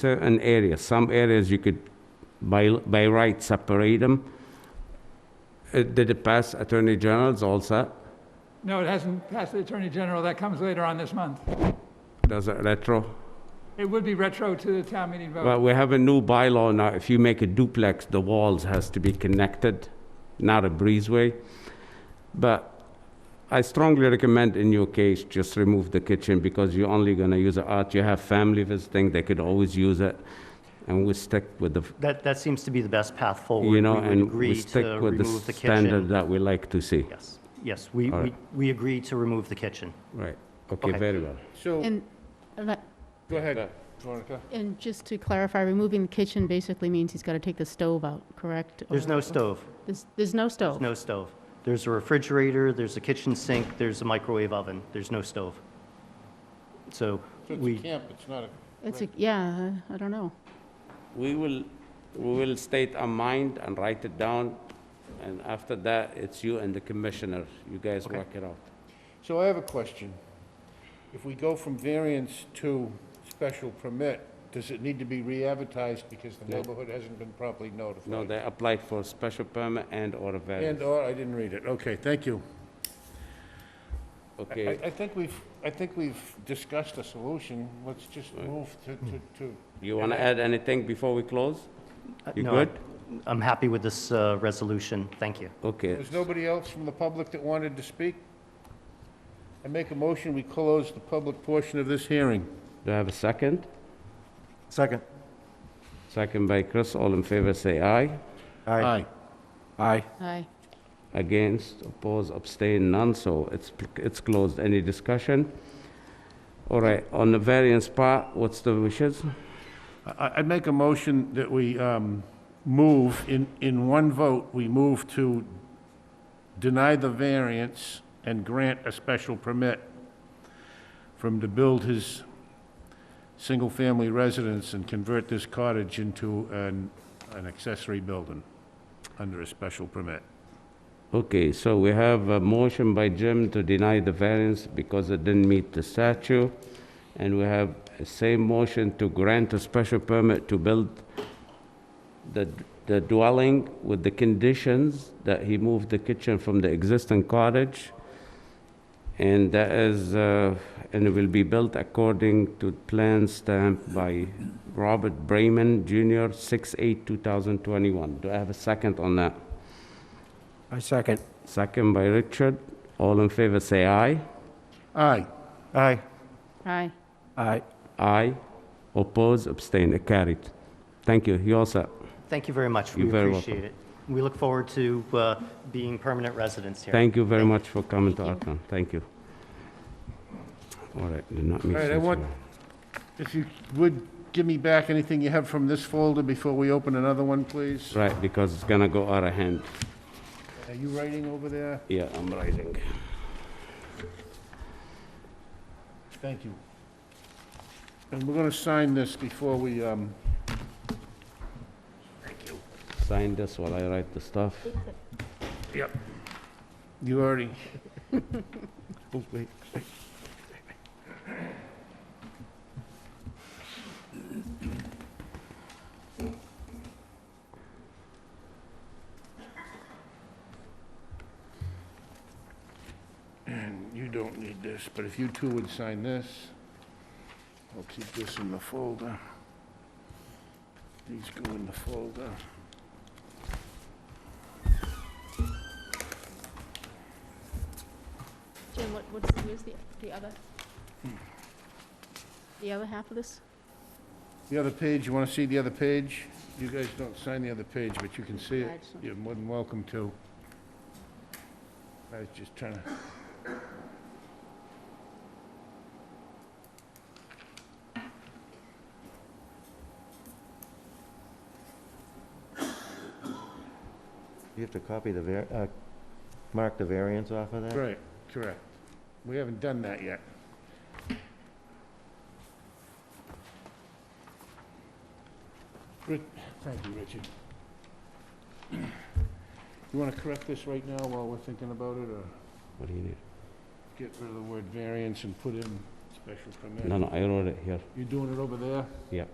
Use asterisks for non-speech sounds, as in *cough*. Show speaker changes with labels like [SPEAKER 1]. [SPEAKER 1] certain areas, some areas you could by, by right separate them. It Did it pass Attorney General's also?
[SPEAKER 2] No, it hasn't passed the Attorney General. That comes later on this month.
[SPEAKER 1] Does it retro?
[SPEAKER 2] It would be retro to the town meeting vote.
[SPEAKER 1] Well, we have a new bylaw now, if you make a duplex, the walls has to be connected, not a breezeway. But I strongly recommend in your case, just remove the kitchen, because you're only gonna use it out, you have family visiting, they could always use it, and we stick with the,
[SPEAKER 3] That, that seems to be the best path forward.
[SPEAKER 1] you know,
[SPEAKER 3] would
[SPEAKER 1] and
[SPEAKER 3] agree
[SPEAKER 1] we
[SPEAKER 3] to
[SPEAKER 1] stick with
[SPEAKER 3] remove
[SPEAKER 1] the
[SPEAKER 3] kitchen.
[SPEAKER 1] standard that we like to see.
[SPEAKER 3] Yes, yes, we,
[SPEAKER 1] All
[SPEAKER 3] we,
[SPEAKER 1] right.
[SPEAKER 3] we agree to remove the kitchen.
[SPEAKER 1] Right, okay,
[SPEAKER 3] Okay.
[SPEAKER 1] very well.
[SPEAKER 4] So,
[SPEAKER 5] And, le-
[SPEAKER 4] go ahead, Veronica.
[SPEAKER 5] and just to clarify, removing the kitchen basically means he's got to take the stove out, correct?
[SPEAKER 3] There's
[SPEAKER 5] Or-
[SPEAKER 3] no stove,
[SPEAKER 5] There's, there's no
[SPEAKER 3] There's
[SPEAKER 5] stove?
[SPEAKER 3] no stove. There's a refrigerator, there's a kitchen sink, there's a microwave oven, there's no stove. So
[SPEAKER 4] So it's a
[SPEAKER 3] we,
[SPEAKER 4] camp, it's not a,
[SPEAKER 5] It's, a yeah, I don't know.
[SPEAKER 1] We will, we will state our mind and write it down, and after that, it's you and the commissioner, you guys work it out.
[SPEAKER 4] so I have a question. If we go from variance to special permit, does it need to be re-advertised because the
[SPEAKER 1] No.
[SPEAKER 4] neighborhood hasn't been properly notified?
[SPEAKER 1] No, they applied for a special permit and/or a
[SPEAKER 4] And,
[SPEAKER 1] variance.
[SPEAKER 4] or, I didn't read it, okay, thank you. I,
[SPEAKER 1] Okay,
[SPEAKER 4] I think we've, I think we've discussed a solution, let's just move to, to, to,
[SPEAKER 1] you want to add anything before we close?
[SPEAKER 3] uh,
[SPEAKER 1] You
[SPEAKER 3] no,
[SPEAKER 1] good?
[SPEAKER 3] I- I'm happy with this uh, resolution, thank you.
[SPEAKER 1] Okay,
[SPEAKER 4] there's nobody else from the public that wanted to speak? I make a motion, we close the public portion of this hearing.
[SPEAKER 1] do I have a second?
[SPEAKER 6] Second.
[SPEAKER 1] Second by Chris, all in favor, say aye.
[SPEAKER 6] Aye. Aye.
[SPEAKER 5] Aye.
[SPEAKER 1] Against, oppose, abstain, none, so it's, it's closed. Any discussion? All right, on the variance part, what's the wishes?
[SPEAKER 4] I- I'd make a motion that we um, move, in, in one vote, we move to deny the variance and grant a special permit for him to build his single-family residence and convert this cottage into an, an accessory building under a special permit.
[SPEAKER 1] Okay, so we have a motion by Jim to deny the variance because it didn't meet the statute. And we have a same motion to grant a special permit to build the, the dwelling with the conditions that he moved the kitchen from the existing cottage. And that is, uh, and it will be built according to plan stamped by Robert Bremen Jr., 6/8/2021. Do I have a second on that?
[SPEAKER 6] I second.
[SPEAKER 1] Second by Richard. All in favor, say aye.
[SPEAKER 4] Aye.
[SPEAKER 6] Aye.
[SPEAKER 5] Aye.
[SPEAKER 6] Aye.
[SPEAKER 1] Aye. Oppose, abstain, It carried. Thank you. You all set?
[SPEAKER 3] Thank you very much,
[SPEAKER 1] You're
[SPEAKER 3] we
[SPEAKER 1] very
[SPEAKER 3] appreciate it. We look forward to uh, being permanent residents here.
[SPEAKER 1] Thank you very
[SPEAKER 3] Thank
[SPEAKER 1] much for coming to our town. Thank you. All right, did not make
[SPEAKER 4] All right, I
[SPEAKER 1] sense
[SPEAKER 4] want-
[SPEAKER 1] here.
[SPEAKER 4] If you would, give me back anything you have from this folder before we open another one, please.
[SPEAKER 1] Right, because it's gonna go out of hand.
[SPEAKER 4] Are you writing over there?
[SPEAKER 1] Yeah, I'm writing.
[SPEAKER 4] Thank you. And we're going to sign this before we, um,
[SPEAKER 1] Sign this while I write the stuff.
[SPEAKER 4] you *laughs* already, Oh, and you don't need this, but if you two would sign this, I'll keep this in the folder. These go in the folder.
[SPEAKER 5] Jim, what, what's, where's the, the other? The other half of this?
[SPEAKER 4] The other page, you want to see the other page? You guys don't sign the other page, but you can see
[SPEAKER 5] I
[SPEAKER 4] it.
[SPEAKER 5] just-
[SPEAKER 4] You're more than welcome to. I was just trying to...
[SPEAKER 7] You have to copy the, var- uh, mark the variance off of that?
[SPEAKER 4] Right, correct. We haven't done that yet. Ri- Thank you, Richard. You want to correct this right now while we're thinking about it, or
[SPEAKER 1] What do you need?
[SPEAKER 4] get rid of the word variance and put in special permit?
[SPEAKER 1] No, no, I wrote it here.
[SPEAKER 4] You're doing it over there?
[SPEAKER 1] Yeah.